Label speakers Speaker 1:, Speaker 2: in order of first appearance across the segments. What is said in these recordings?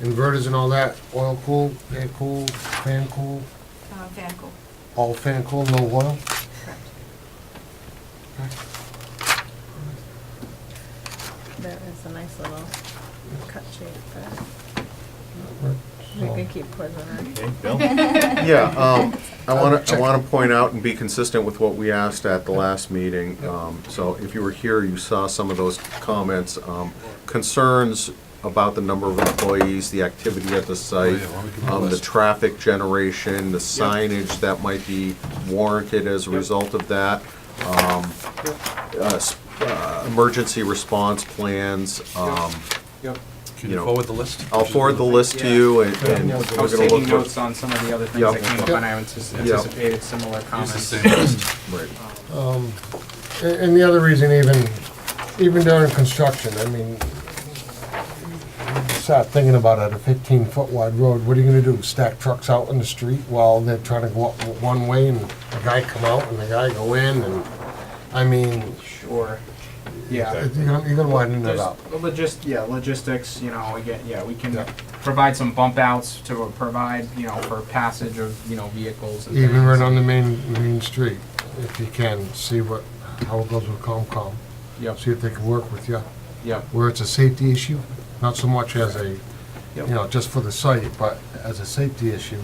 Speaker 1: inverters and all that, oil cool, air cool, fan cool,
Speaker 2: uh, Van Gogh.
Speaker 1: all fan cool, no oil?
Speaker 2: correct.
Speaker 3: That is a nice little cut shape, but we
Speaker 4: Oh.
Speaker 1: So-
Speaker 3: could keep quizzing her.
Speaker 5: Okay, Bill?
Speaker 4: Yeah, um, I want to, I want to point out and be consistent with what we asked at the last meeting. Um, So if you were here, you saw some of those comments, um, concerns about the number of employees, the activity at the
Speaker 5: Oh,
Speaker 4: site,
Speaker 5: yeah, why don't we give them a
Speaker 4: um, the
Speaker 5: list?
Speaker 4: traffic generation, the signage that might be warranted as a result of that, um, uh, s- uh, emergency response plans. um,
Speaker 6: Yep.
Speaker 5: Can
Speaker 4: You
Speaker 5: you
Speaker 4: know,
Speaker 5: forward the list?
Speaker 4: I'll forward the list to you and and
Speaker 1: Yeah.
Speaker 4: we're
Speaker 6: I was
Speaker 4: gonna
Speaker 6: taking
Speaker 4: look for.
Speaker 6: notes on some of the other
Speaker 4: Yeah.
Speaker 6: things that came up, and I antici-
Speaker 4: Yeah.
Speaker 6: anticipated similar
Speaker 5: Use the
Speaker 6: comments.
Speaker 5: same list.
Speaker 4: Right.
Speaker 1: A- And the other reason even, even during construction, I mean, you start thinking about it, a fifteen-foot wide road, what are you gonna do? Stack trucks out in the street while they're trying to go up w- one way and the guy come out and the guy go in and, I mean,
Speaker 6: Sure,
Speaker 1: you're
Speaker 6: yeah.
Speaker 1: gonna, you're gonna widen it
Speaker 6: There's
Speaker 1: up.
Speaker 6: logis, yeah, logistics, you know, again, yeah, we can
Speaker 1: Yeah.
Speaker 6: provide some bump outs to provide, you know, for passage of, you know, vehicles and things.
Speaker 1: Even right on the main, main street, if you can, see what, how it goes with Comcom,
Speaker 6: Yep,
Speaker 1: see if they can work with you.
Speaker 6: yep,
Speaker 1: Where it's a safety issue, not so much as a, you
Speaker 6: Yep.
Speaker 1: know, just for the site, but as a safety issue,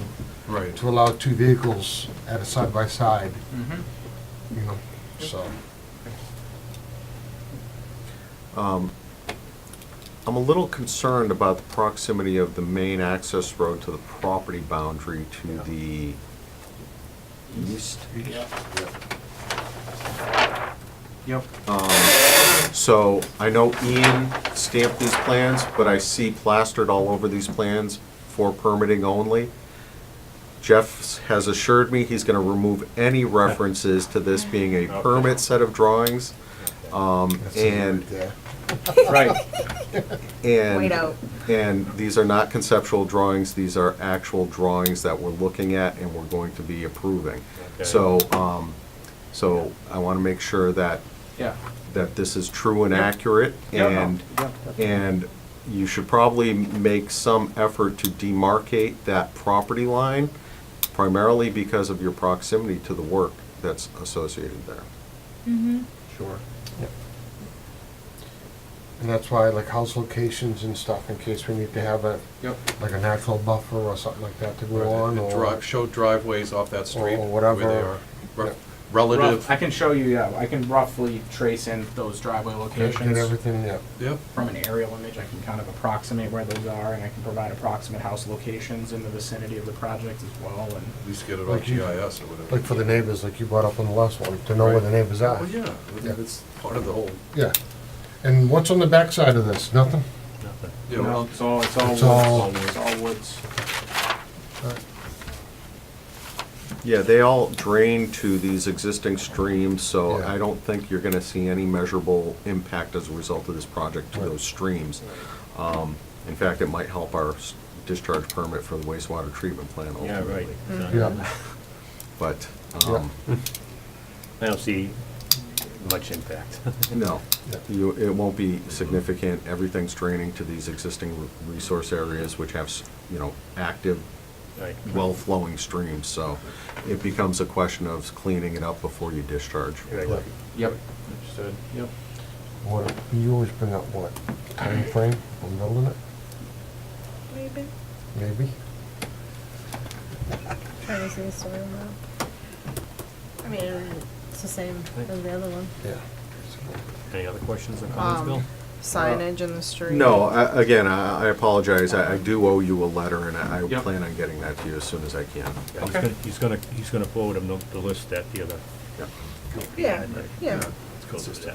Speaker 5: Right.
Speaker 1: to allow two vehicles at a side-by-side,
Speaker 6: mhm.
Speaker 5: Mm-hmm.
Speaker 1: you know, so.
Speaker 4: Um, I'm a little concerned about the proximity of the main access road to the property boundary to the east.
Speaker 6: Yep,
Speaker 4: So I know Ian stamped these plans, but I see plastered all over these plans for permitting only. Jeff has assured me he's gonna remove any references to this being a permit set of drawings. Um, and
Speaker 6: right,
Speaker 4: And,
Speaker 3: Wait out.
Speaker 4: and these are not conceptual drawings, these are actual drawings that we're looking at and we're going to be approving.
Speaker 5: Okay.
Speaker 4: So, um, so I want to make sure that,
Speaker 6: yeah.
Speaker 4: that this is true and accurate
Speaker 6: Yeah, no,
Speaker 4: and,
Speaker 6: yep.
Speaker 4: and you should probably make some effort to demarcate that property line primarily because of your proximity to the work that's associated there.
Speaker 6: Sure.
Speaker 1: And that's why I like house locations and stuff, in case we need to have a,
Speaker 6: Yep,
Speaker 1: like a natural buffer or something like that to go on,
Speaker 5: And
Speaker 1: or.
Speaker 5: drive, show driveways off that street.
Speaker 1: Or whatever.
Speaker 5: Where they are. Re-
Speaker 1: Yeah.
Speaker 5: Relative,
Speaker 6: rough, I can show you, yeah, I can roughly trace in those driveway
Speaker 1: Get get
Speaker 6: locations.
Speaker 1: everything, yeah.
Speaker 5: yep,
Speaker 6: from an aerial image, I can kind of approximate where those are, and I can provide approximate house locations in the vicinity of the project as well, and.
Speaker 5: at least get it on
Speaker 1: Like you-
Speaker 5: GIS or whatever.
Speaker 1: Like for the neighbors, like you brought up on the last one, to know where the neighbors are.
Speaker 5: Well, Oh, yeah,
Speaker 1: Yeah.
Speaker 5: that's part of the whole,
Speaker 1: Yeah. And what's on the backside of this? Nothing?
Speaker 5: you
Speaker 6: You know,
Speaker 5: know,
Speaker 6: It's all, it's all
Speaker 1: It's all-
Speaker 6: woods, it's all woods.
Speaker 4: Yeah, they all drain to these existing streams, so
Speaker 1: Yeah.
Speaker 4: I don't think you're gonna see any measurable impact as a result of this project to those streams. Um, In fact, it might help our s- discharge permit for the wastewater treatment plant ultimately.
Speaker 6: Hmm.
Speaker 1: Yeah.
Speaker 4: But, um,
Speaker 7: I don't see much impact.
Speaker 4: no,
Speaker 1: Yeah.
Speaker 4: you, it won't be significant. Everything's draining to these existing re- resource areas which have, s- you know, active,
Speaker 7: Right.
Speaker 4: well-flowing streams, so it becomes a question of cleaning it up before you discharge.
Speaker 7: Right.
Speaker 6: Yep. Understood. Yep.
Speaker 1: What, you always bring up what, time frame on building it,
Speaker 3: Maybe.
Speaker 1: maybe?
Speaker 3: Trying to see the story map. I mean, it's the same as the other one.
Speaker 1: Yeah.
Speaker 7: Any other questions or comments, Bill?
Speaker 3: Um, signage in the street.
Speaker 4: Uh, No, I- again, I I apologize. I I do owe you a letter, and I I
Speaker 6: Yep.
Speaker 4: plan on getting that to you as soon as I can.
Speaker 7: Yeah, he's
Speaker 6: Okay.
Speaker 7: gonna- He's gonna, he's gonna forward him the- the list that the other.
Speaker 4: Yeah.
Speaker 3: Yeah,
Speaker 7: Right.
Speaker 3: yeah.
Speaker 7: Let's go through that.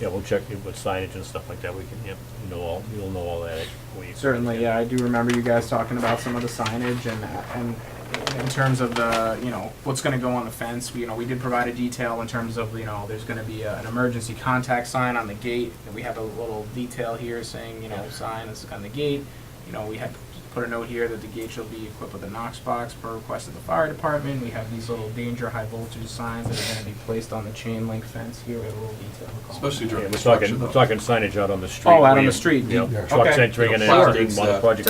Speaker 7: Yeah, we'll check it with signage and stuff like that. We can, yep, you know all, you'll know all that. when you-
Speaker 6: Certainly, yeah, I do remember you guys talking about some of the signage and, and in terms of the, you know, what's gonna go on the fence, we, you know, we did provide a detail in terms of, you know, there's gonna be a- an emergency contact sign on the gate, and we have a little detail here saying, you know, sign is on the gate. You know, we had put a note here that the gate shall be equipped with a Knox box per request of the fire department. We have these little danger high voltage signs that are gonna be placed on the chain link fence here, we have a little detail.
Speaker 5: especially
Speaker 7: Yeah,
Speaker 5: during
Speaker 7: we're
Speaker 5: construction.
Speaker 7: talking, we're
Speaker 5: though.
Speaker 7: talking signage out on the street.
Speaker 6: out on
Speaker 7: where
Speaker 6: the
Speaker 7: you-
Speaker 6: street,
Speaker 7: you know,
Speaker 1: yeah.
Speaker 7: Trucks
Speaker 6: Okay.
Speaker 7: entering and
Speaker 5: Sure.
Speaker 7: exiting, while the project